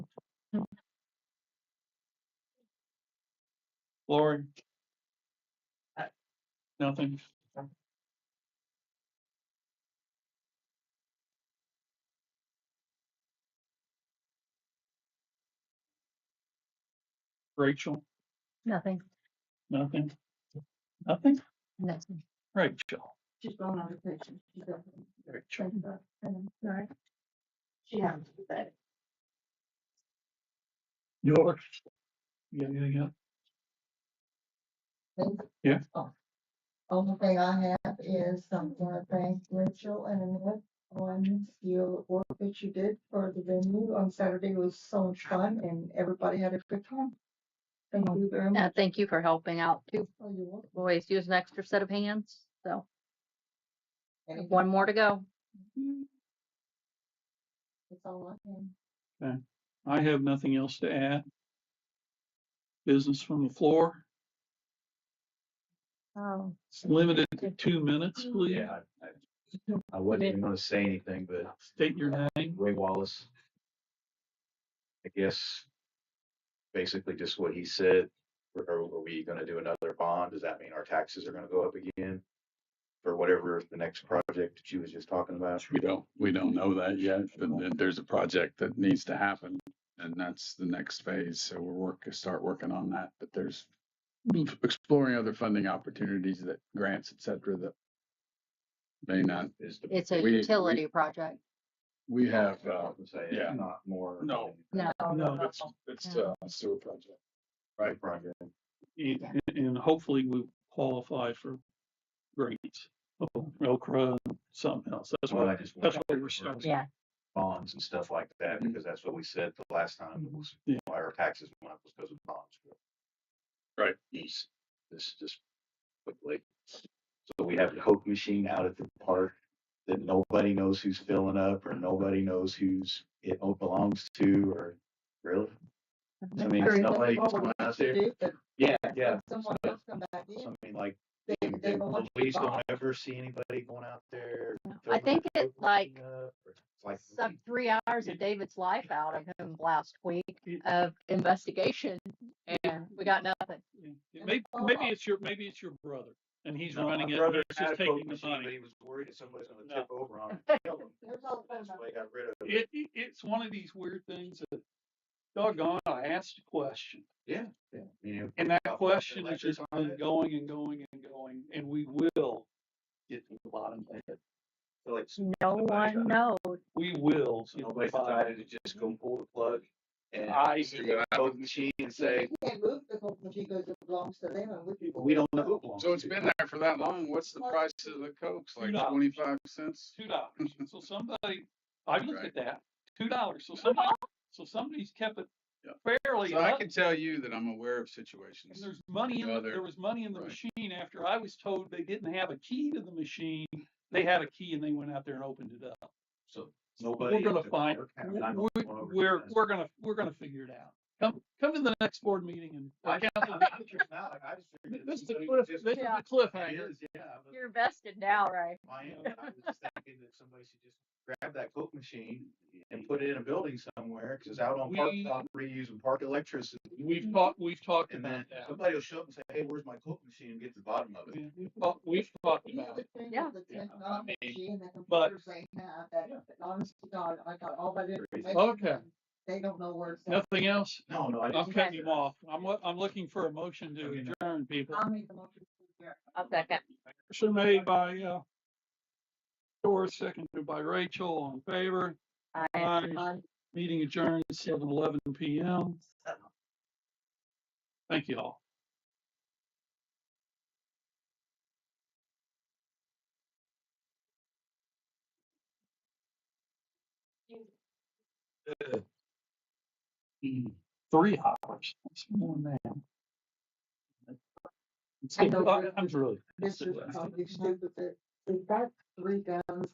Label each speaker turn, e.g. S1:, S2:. S1: Lori? Nothing? Rachel?
S2: Nothing,
S1: Nothing? Nothing?
S2: nothing.
S1: Rachel?
S3: She's going on vacation. She's up in-
S1: Rachel?
S2: Mm-hmm.
S3: thinking about it, and I'm Sorry. She has to say.
S1: Yours? Yeah, yeah, yeah. Yeah.
S3: Oh. Only thing I have is, um, I wanna thank Rachel and Annette on your work that you did for the venue on Saturday. It was so much fun and everybody had a good time. Thank you very
S2: Uh,
S3: much.
S2: thank you for helping out too.
S3: Oh, you're welcome.
S2: Always use an extra set of hands. So
S3: Anything-
S2: one more to go.
S3: That's all I have.
S1: I have nothing else to add. Business from the floor,
S2: Oh.
S1: It's limited to two minutes, please.
S4: Yeah. I- I wasn't even gonna say anything, but
S1: State your name.
S4: Ray Wallace. I guess. Basically just what he said, are, are we gonna do another bond? Does that mean our taxes are gonna go up again? For whatever the next project that she was just talking about?
S5: We don't, we don't know that yet, but th- there's a project that needs to happen and that's the next phase. So we're work, start working on that, but there's exploring other funding opportunities that grants, et cetera, that may not,
S4: Is the.
S2: It's a
S5: We- we-
S2: utility project.
S5: we have, uh,
S4: I'll Say,
S5: yeah.
S4: it's not more.
S5: No.
S2: No.
S3: Oh,
S1: No,
S5: it's, it's uh, a sewer project.
S4: Right, project.
S1: And, and hopefully we qualify for grants, oh, Okra, something else. That's
S4: Well,
S1: what,
S4: I just.
S1: that's what we're starting.
S2: Yeah.
S4: Bonds and stuff like that, because that's what we said the last time, it was,
S1: Yeah.
S4: why our taxes went up was because of bonds.
S5: Right.
S4: These, this just quickly. So we have the Coke machine out at the park that nobody knows who's filling up, or nobody knows who's it belongs to, or really? I mean,
S3: Very
S4: it's nobody
S3: much
S4: going out
S3: to
S4: there.
S3: do, but
S4: Yeah, yeah.
S3: Someone
S4: So-
S3: else come back
S4: so
S3: in.
S4: I mean, like,
S3: They,
S4: the
S3: they want to
S4: police
S3: buy.
S4: don't ever see anybody going out there.
S2: I
S4: filling
S2: think
S4: the
S2: it,
S4: Coke
S2: like,
S4: machine up, or it's Like. hmm.
S2: Sucked three hours of David's life out of him last week of investigation and we got nothing.
S1: Maybe, maybe it's your, maybe it's your brother and he's
S4: No, my
S1: running it, but
S4: brother
S1: it's
S4: had
S1: just
S4: a Coke
S1: taking the
S4: machine, but
S1: money.
S4: He was worried that somebody's gonna
S1: No.
S4: tip over on it. and kill him.
S3: There's all the phone
S4: That's why he got rid of it.
S1: It, it- it's one of these weird things that doggone, I asked a question.
S4: Yeah. yeah, I mean, it-
S1: And that
S4: Well,
S1: question is
S4: electric
S1: just
S4: on
S1: been
S4: it.
S1: going and going and going, and we will get to the bottom of it.
S4: I feel like s-
S2: No
S4: Nobody's
S2: one
S4: done
S2: knows.
S1: We will. get to the
S4: Nobody
S1: bottom.
S4: decided to just go pull the plug and
S1: I-
S4: figure out Coke machine and say,
S3: You can't move the Coke machine because it belongs to them and we can.
S4: we don't know who it belongs
S5: So it's
S4: to."
S5: been there for that long. What's the price of the Cokes? Like
S1: $2.
S5: twenty-five cents?
S1: Two dollars. So somebody, I looked
S5: Right.
S1: at that, two dollars. So somebody, so somebody's kept it
S5: Yeah.
S1: fairly
S5: So I
S1: up.
S5: can tell you that I'm aware of
S1: And
S5: situations.
S1: there's money in,
S5: No
S1: the-
S5: other-
S1: there was money in the
S5: right.
S1: machine after I was told they didn't have a key to the machine. They had a key and they went out there and opened it up.
S4: So
S1: We're
S4: nobody.
S1: gonna
S4: at the
S1: find,
S4: park had- and I know
S1: we're,
S4: one over
S1: we're,
S4: there
S1: we're gonna, we're gonna figure it out. Come, come to the next board meeting and.
S4: I
S1: work
S4: can't,
S1: out
S4: I
S1: the-
S4: mean, I'm just now, like, I just figured
S1: This is the
S4: somebody
S1: cliff, this
S4: just-
S1: is the
S2: Yeah.
S4: It
S1: cliffhanger.
S4: is, yeah, but-
S2: You're vested now, right?
S4: I am, I was just thinking that somebody should just grab that Coke machine and put it in a building somewhere, cause it's out on park
S1: We-
S4: property using park electricity.
S1: We've talked, we've talked
S4: And
S1: about
S4: then
S1: that.
S4: somebody will show up and say, hey, where's my Coke machine? And get to the bottom of it.
S1: Yeah, We've talked- we've talked
S3: You
S1: about
S3: have
S1: it.
S3: to think
S2: Yeah.
S3: of the
S4: Yeah.
S3: technology and the
S1: But-
S3: computers they have that, that honest to God, I got all that information.
S1: Okay.
S3: and They don't know where it's at.
S1: Nothing else?
S4: No, no, I
S1: I'm
S4: just.
S1: cutting him off. I'm, lo- I'm looking for a motion to
S4: Okay, Um, no.
S1: adjourn, people.
S3: I'll make the motion.
S2: I'll second.
S1: Motion made by, uh, Doris, seconded by Rachel, all in favor.
S2: I,
S1: Aye. Meeting adjourned, seven eleven P M. Thank you all. Three hours. That's more than
S3: I know.
S1: that. I'm really.
S3: This is,
S1: That's it.
S3: how you stupid, that- they've got three guns